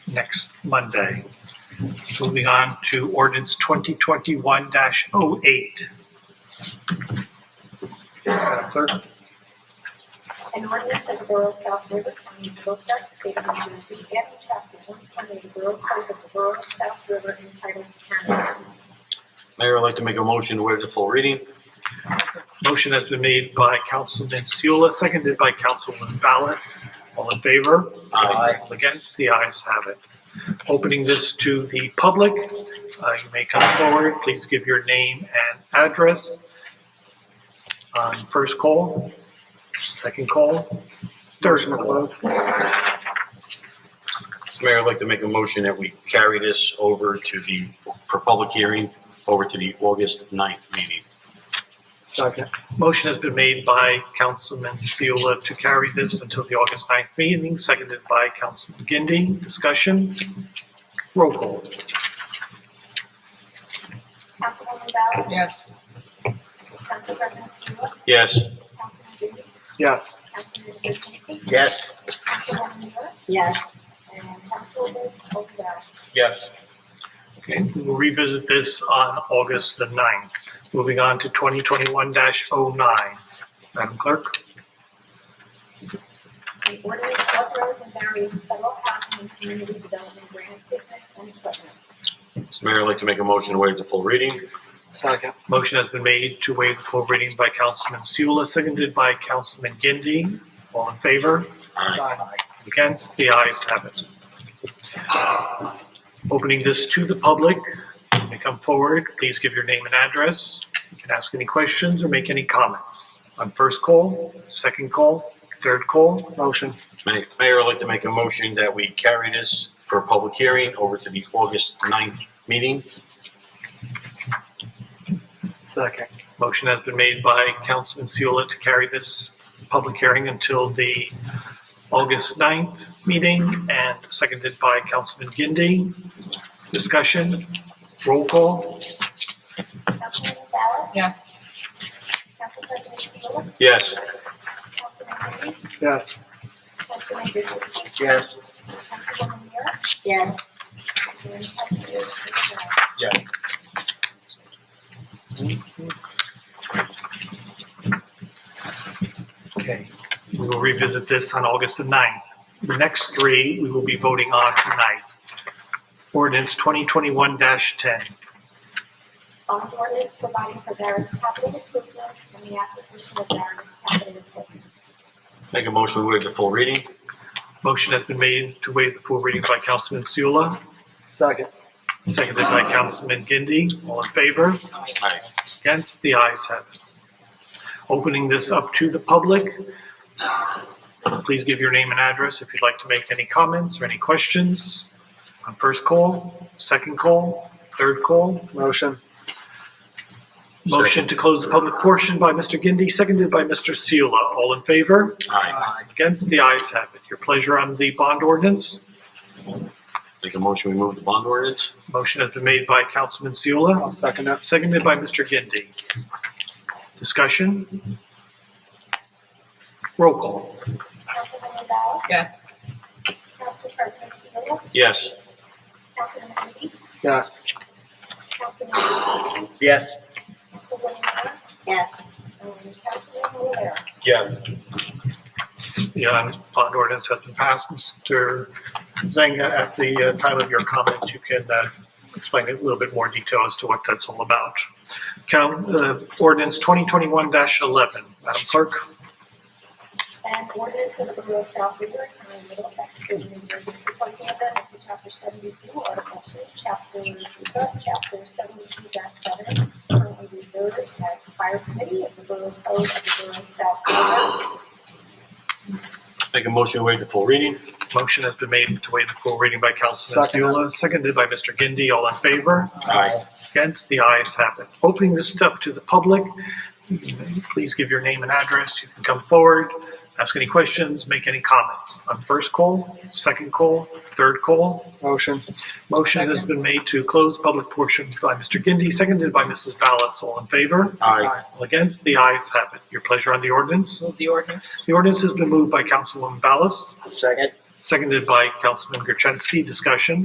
next Monday. Moving on to ordinance twenty twenty-one oh 8 Madam Clerk? An ordinance of the Borough of South River County, Middlesex, State of New Jersey, adding chapter one twenty of the Borough Code of the Borough of South River entitled cannabis. Mayor, I'd like to make a motion to waive the full reading. Motion has been made by Councilman Seula, seconded by Councilman Ballas. All in favor? Aye. All Against? The ayes have it. Opening this to the public, uh, you may come forward. Please give your name and address. On first call, second call, third call. Mr. Mayor, I'd like to make a motion that we carry this over to the, for public hearing, over to the August 9th meeting. Second. Motion has been made by Councilman Seula to carry this until the August 9th meeting, seconded by Councilman Gindi. Discussion? Roll call. Councilwoman Ballas? Yes. Council President Seula? Yes. Councilman Biddy? Yes. Councilman Gertenski? Yes. Councilwoman Miller? Yes. And Councilwoman O'Dowd? Yes. Okay, we will revisit this on August the 9th. Moving on to 2021-09. Madam Clerk? The ordinance authorizing various federal housing and community development grant equipment and equipment. Mr. Mayor, I'd like to make a motion to waive the full reading. Second. Motion has been made to waive the full reading by Councilman Seula, seconded by Councilman Gindi. All in favor? Aye. Against? The ayes have it. Opening this to the public, you may come forward, please give your name and address. You can ask any questions or make any comments. On first call, second call, third call. Motion. Ma- Mayor, I'd like to make a motion that we carry this for public hearing over to the August 9th meeting. Second. Motion has been made by Councilman Seula to carry this public hearing until the August 9th meeting and seconded by Councilman Gindi. Discussion, roll call, Councilwoman Ballas? Yes. Council President Seula? Yes. Councilman Biddy? Yes. Councilman Gertenski? Yes. Councilwoman Miller? Yes. And Councilwoman O'Dowd? Yes. Okay, we will revisit this on August the 9th. The next three we will be voting on tonight. Ordinance 2021-10. on ordinance providing for various capital improvements and the acquisition of various capital equipment. Make a motion to waive the full reading. Motion has been made to waive the full reading by Councilman Seula, Second. seconded by Councilman Gindi. All in favor? Aye. Against? The ayes have it. Opening this up to the public. Please give your name and address if you'd like to make any comments or any questions. On first call, second call, third call. Motion. Motion to close the public portion by Mr. Gindi, seconded by Mr. Seula. All in favor? Aye. Against? The ayes have it. Your pleasure on the bond ordinance? Make a motion, we move the bond ordinance. Motion has been made by Councilman Seula. I'll second it. Seconded by Mr. Gindi. Discussion? Roll call. Councilwoman Ballas? Yes. Council President Seola? Yes. Councilman Lee? Yes. Councilman Gertenski? Yes. Councilwoman Miller? Yes. And Councilwoman O'Dowd? Yes. The uh, bond ordinance has been passed. Mr. Zanga, at the uh, time of your comment, you can uh, explain in a little bit more detail as to what that's all about. Count, uh, ordinance 2021-11. Madam Clerk? And ordinance of the Borough of South River, County of Middlesex, State of New Jersey, proposing amendment to chapter seventy-two, article two, chapter, subchapter seventy-two seven, currently reserved as fire committee of the Borough Code of the Borough of South River, Make a motion to waive the full reading. Motion has been made to waive the full reading by Councilman Second. Seula, seconded by Mr. Gindi. All in favor? Aye. Against? The ayes have it. Opening this up to the public, please give your name and address. You can come forward, ask any questions, make any comments. On first call, second call, third call. Motion. Motion has been made to close public portion by Mr. Gindi, seconded by Mrs. Ballas. All in favor? Aye. All against? The ayes have it. Your pleasure on the ordinance? Move the ordinance? The ordinance has been moved by Councilwoman Ballas, Second. seconded by Councilman Gertensky. Discussion?